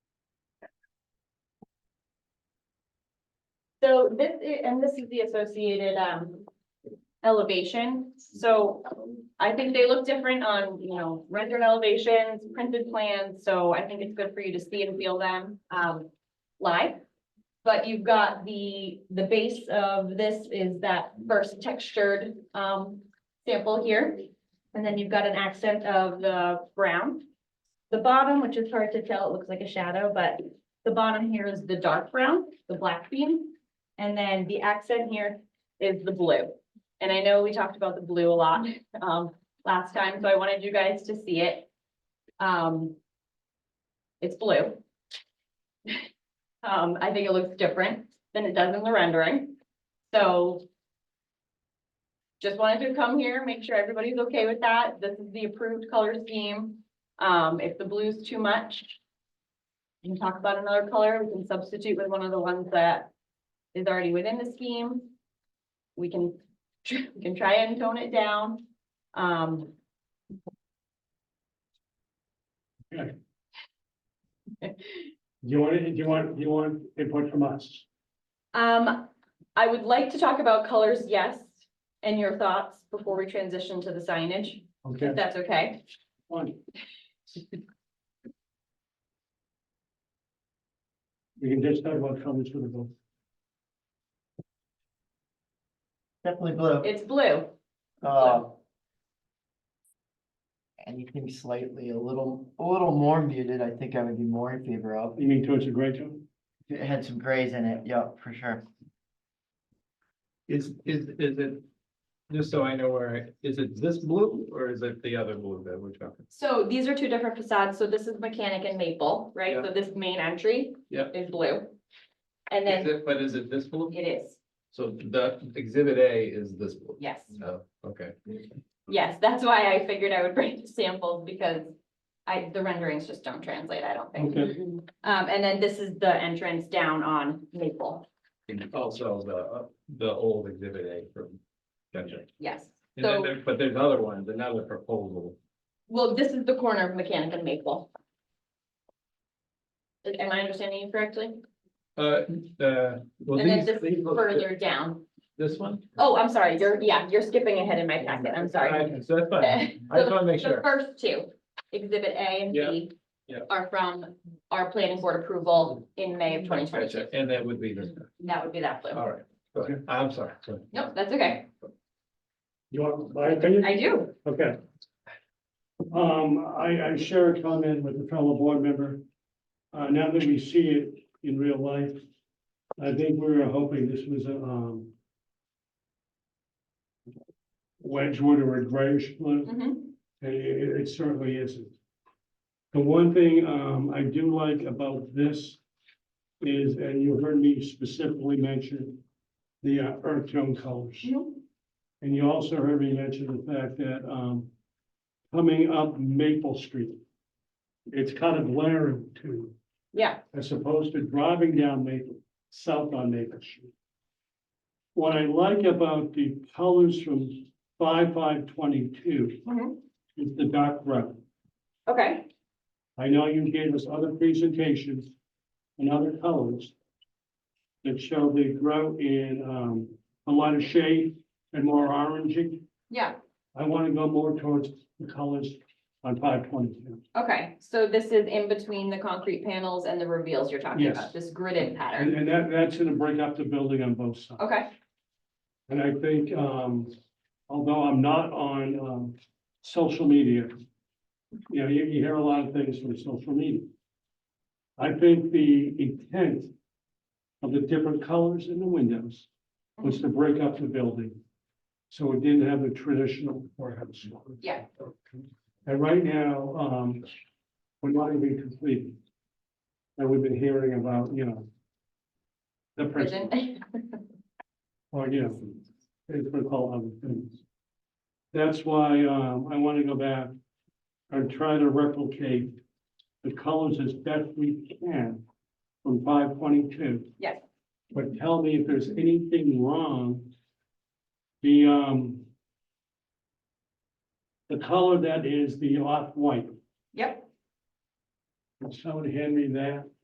So this, i- and this is the associated, um, elevation, so I think they look different on, you know, rendered elevations, printed plans, so I think it's good for you to see and feel them, um, live. But you've got the, the base of this is that first textured, um, sample here. And then you've got an accent of the brown. The bottom, which is hard to tell, it looks like a shadow, but the bottom here is the dark brown, the black beam. And then the accent here is the blue. And I know we talked about the blue a lot, um, last time, so I wanted you guys to see it. Um, it's blue. Um, I think it looks different than it does in the rendering, so. Just wanted to come here, make sure everybody's okay with that. This is the approved color scheme. Um, if the blue's too much, we can talk about another color, we can substitute with one of the ones that is already within the scheme. We can, we can try and tone it down, um. Do you want, it- do you want, do you want input from us? Um, I would like to talk about colors, yes, and your thoughts before we transition to the signage, Okay, if that's okay. fine. We can just talk about comments for the vote. Definitely blue. It's blue, Uh, Anything slightly a little, a little more muted, I think I would be more in favor of. You mean towards the gray zone? If It had some grays in it, yeah, for sure. Is, is, is it, just so I know where, I- is it this blue or is it the other blue that we're talking? so these are two different facades, so this is mechanic and maple, right? So this main entry Yeah. is blue. And Is then it, but is it this blue? it is, So the exhibit A is this blue? yes. No, okay. Yes, that's why I figured I would bring the samples because I, the renderings just don't translate, I don't think. Okay, Um, and then this is the entrance down on Maple, And also the, uh, the old exhibit A from. Gotcha. yes. And then So, there, but there's other ones, another proposal. well, this is the corner of Mechanic and Maple. Am I understanding you correctly? Uh, uh, well, And then these, this these is look- further down. this one? Oh, I'm sorry, you're, yeah, you're skipping ahead in my packet, I'm sorry. Uh, So that's fine. I just want to make The sure. first two, Exhibit A and Yeah, B, yeah. are from our planning board approval in May of twenty twenty-two. And that would be this. one. That would be that blue. All right. Go ahead. I'm sorry. Go ahead. Nope, that's okay. you want my opinion? I do. Okay. Um, I, I share a comment with a fellow board member. Uh, now that we see it in real life, I think we were hoping this was a, um, Wedgewood or a grayish blue. Mhm. And it, it- it certainly isn't. The one thing, um, I do like about this is, and you heard me specifically mention the uh, earth tone colors. And you also heard me mention the fact that, um, coming up Maple Street, it's kind of glaring too, Yeah, as opposed to driving down Maple, south on Maple Street. What I like about the colors from five, five, twenty-two Mhm. is the dark brown. okay, I know you gave us other presentations and other colors that show they grow in, um, a lot of shade and more orangey. yeah, I want to go more towards the colors on five twenty-two. okay, so this is in between the concrete panels and the reveals you're talking Yes. about, this gridded And, pattern, and that, that's gonna break up the building on both sides. okay, And I think, um, although I'm not on, um, social media, you know, you, you hear a lot of things from social media. I think the intent of the different colors in the windows was to break up the building. So it didn't have a traditional courthouse. look. Yeah. And right now, um, we're not even completed. And we've been hearing about, you know, the prison. Prison. Or, you know, it's what we call other things. That's why, um, I want to go back and try to replicate the colors as best we can from five twenty-two. Yes. But tell me if there's anything wrong. The, um, the color that is the off-white, yep, Can someone hand me that,